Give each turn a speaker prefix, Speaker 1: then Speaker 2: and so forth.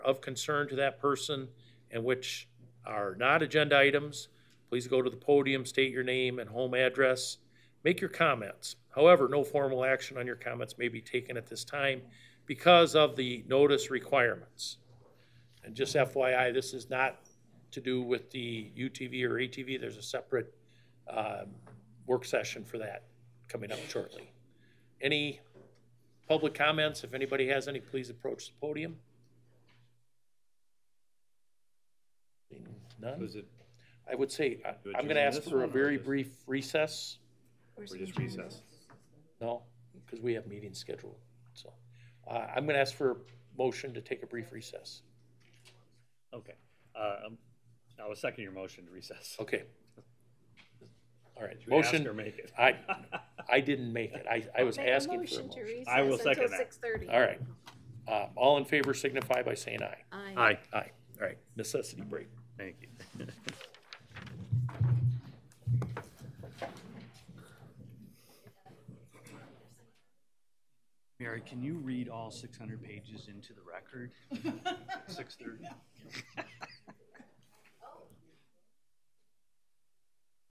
Speaker 1: of concern to that person and which are not agenda items, please go to the podium, state your name and home address, make your comments. However, no formal action on your comments may be taken at this time because of the notice requirements. And just FYI, this is not to do with the UTV or ATV. There's a separate um, work session for that coming up shortly. Any public comments? If anybody has any, please approach the podium. None?
Speaker 2: Was it,
Speaker 1: I would say, I-
Speaker 2: Do it
Speaker 1: I'm going
Speaker 2: during
Speaker 1: to ask
Speaker 2: this
Speaker 1: for a
Speaker 2: one or
Speaker 1: very
Speaker 2: just-
Speaker 1: brief recess.
Speaker 2: or just recess?
Speaker 1: No, because we have meetings scheduled, so. Uh, I'm going to ask for a motion to take a brief recess.
Speaker 2: Okay. Uh, um, I was second your motion to recess.
Speaker 1: Okay. All right,
Speaker 2: Should we ask or
Speaker 1: motion,
Speaker 2: make it?
Speaker 1: I, I didn't make it. I, I was
Speaker 3: Make a
Speaker 1: asking for a
Speaker 3: to
Speaker 1: motion.
Speaker 2: I will
Speaker 3: recess until
Speaker 2: second that.
Speaker 3: 6:30.
Speaker 1: All right. Uh, All in favor signify by saying aye.
Speaker 3: Aye.
Speaker 2: Aye,
Speaker 1: Aye. All right, necessity break.
Speaker 2: thank you.
Speaker 4: Mary, can you read all 600 pages into the record? 6:30?